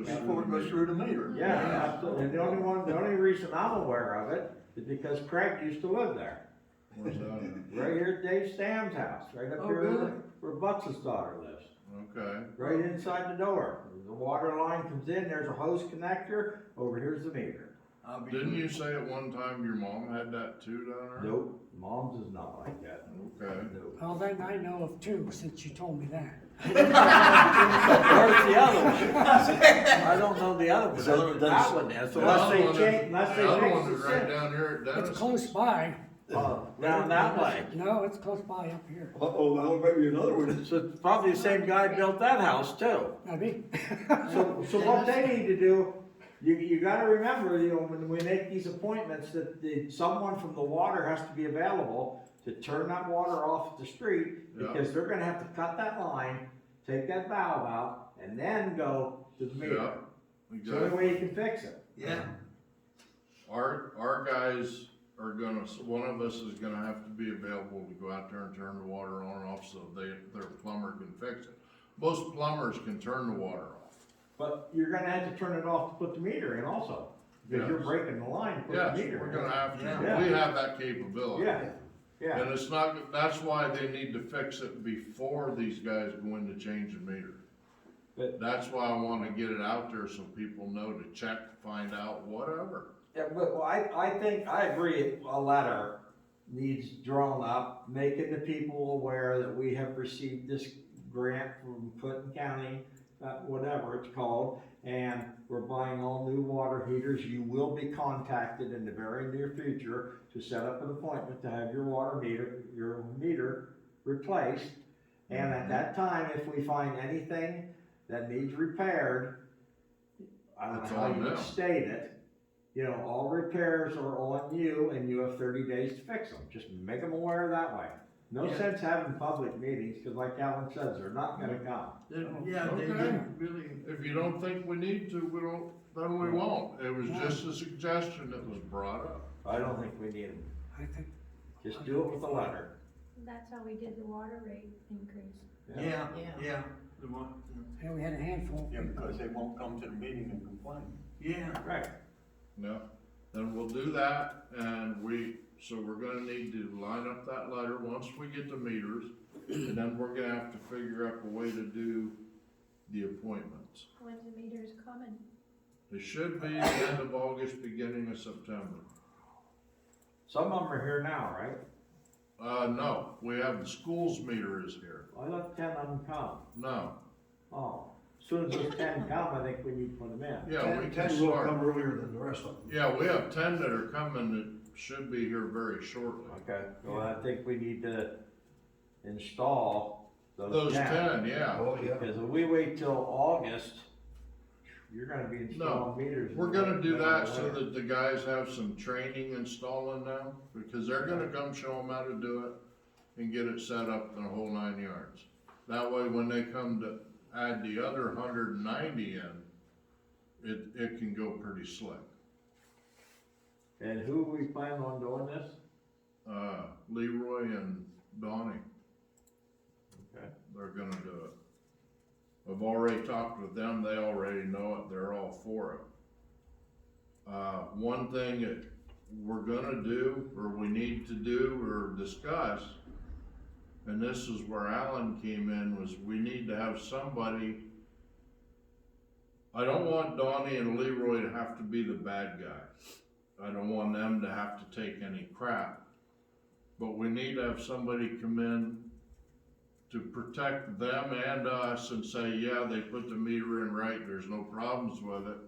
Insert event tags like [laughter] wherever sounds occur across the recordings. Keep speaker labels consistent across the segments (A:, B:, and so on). A: was for, was through the meter.
B: Yeah, absolutely. And the only one, the only reason I'm aware of it is because Craig used to live there.
C: Where's that at?
B: Right here at Dave Stam's house, right up
A: Oh, really?
B: here where Butts' daughter lives.
C: Okay,
B: Right inside the door. The water line comes in, there's a hose connector, over here's the meter.
A: I'll be-
C: didn't you say at one time your mom had that too down
B: Nope, mom's is not like that.
C: there? Okay.
B: Nope.
D: Well, then I know of two, since you told me that.
B: [laughs] Where's the other one? I don't know the other
E: So
B: one.
E: then-
B: That one is,
C: The
B: unless
C: other
B: they
C: one
B: change,
C: is-
B: unless
C: The other one
B: they
C: is
B: fix
C: right
B: the
C: down here at
D: It's
C: Dennis's.
D: close by.
B: sink. Oh, Down that way.
D: No, it's close by up here.
E: Uh-oh, now maybe another one.
B: So it's probably the same guy built that house too.
D: Maybe.
B: So, so what they need to do, you, you gotta remember, you know, when we make these appointments, that the, someone from the water has to be available to turn that water off at the street,
C: Yeah.
B: because they're gonna have to cut that line, take that valve out, and then go to the meter.
C: Yeah,
B: It's the only
C: Exactly.
B: way you can fix it.
A: Yeah,
C: Our, our guys are gonna, s- one of us is gonna have to be available to go out there and turn the water on and off so they, their plumber can fix it. Most plumbers can turn the water off.
B: But you're gonna have to turn it off to put the meter in also, because you're
C: Yes.
B: breaking the line, to put the
C: Yes,
B: meter in.
C: we're gonna have
B: Yeah.
C: to, we have that capability.
B: Yeah, yeah,
C: And it's not, that's why they need to fix it before these guys go in to change the meter.
B: But-
C: That's why I wanna get it out there so people know to check, find out, whatever.
B: yeah, but, well, I, I think, I agree, a letter needs drawn up, making the people aware that we have received this grant from Clinton County, uh, whatever it's called, and we're buying all new water heaters, you will be contacted in the very near future to set up an appointment to have your water meter, your meter replaced. And at that time, if we find anything that needs repaired, I don't
C: It's
B: know how
C: on
B: you
C: them.
B: would state it, you know, all repairs are on you and you have thirty days to fix them, just make them aware that way. No
A: Yeah.
B: sense having public meetings, cause like Alan says, they're not gonna come.
A: They- yeah, they
C: Okay.
A: didn't really,
C: If you don't think we need to, we don't, then we won't. It was just a suggestion that was brought up.
B: I don't think we need them,
D: I think
B: just do it with a letter.
F: That's how we did the water rate increase.
A: yeah,
G: Yeah.
A: yeah. The one,
D: yeah, we had a handful.
E: Yeah, because they won't come to the meeting and complain.
A: yeah,
B: Right.
C: No, then we'll do that and we, so we're gonna need to line up that letter once we get the meters. And then we're gonna have to figure out a way to do the appointments.
F: When the meter's coming,
C: It should be the end of August, beginning of September.
B: Some of them are here now, right?
C: Uh, no, we have the school's meter is here.
B: I let ten of them come.
C: No,
B: Oh, as soon as those ten come, I think we need to put them in.
C: yeah, we can
E: Ten will
C: start.
E: come earlier than the rest of them.
C: Yeah, we have ten that are coming that should be here very shortly.
B: Okay, well, I think we need to install
C: Those
B: those ten.
C: ten, yeah.
E: Oh, yeah.
B: Because if we wait till August, you're gonna be installing meters.
C: We're gonna do that so that the guys have some training installing them, because they're gonna come show them how to do it and get it set up the whole nine yards. That way, when they come to add the other hundred and ninety in, it, it can go pretty slick.
B: And who we plan on doing this?
C: Uh, Leroy and Donnie.
B: Okay.
C: They're gonna do it. I've already talked with them, they already know it, they're all for it. Uh, one thing that we're gonna do, or we need to do, or discuss, and this is where Alan came in, was we need to have somebody. I don't want Donnie and Leroy to have to be the bad guy. I don't want them to have to take any crap. But we need to have somebody come in to protect them and us and say, yeah, they put the meter in right, there's no problems with it.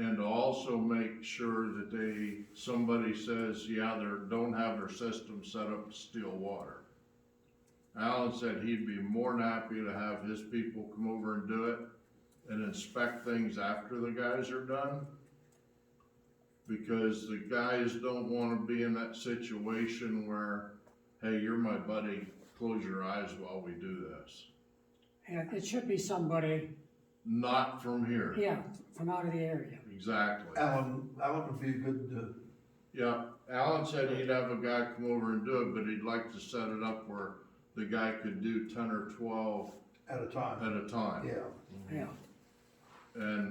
C: And to also make sure that they, somebody says, yeah, they don't have their system set up to steal water. Alan said he'd be more than happy to have his people come over and do it and inspect things after the guys are done. Because the guys don't wanna be in that situation where, hey, you're my buddy, close your eyes while we do this.
D: And it should be somebody,
C: Not from here.
D: yeah, from out of the area.
C: Exactly.
E: Alan, Alan would be a good, uh,
C: Yeah, Alan said he'd have a guy come over and do it, but he'd like to set it up where the guy could do ten or twelve
E: uh, at a
C: at
E: time,
C: a time.
E: yeah.
D: Yeah.
C: And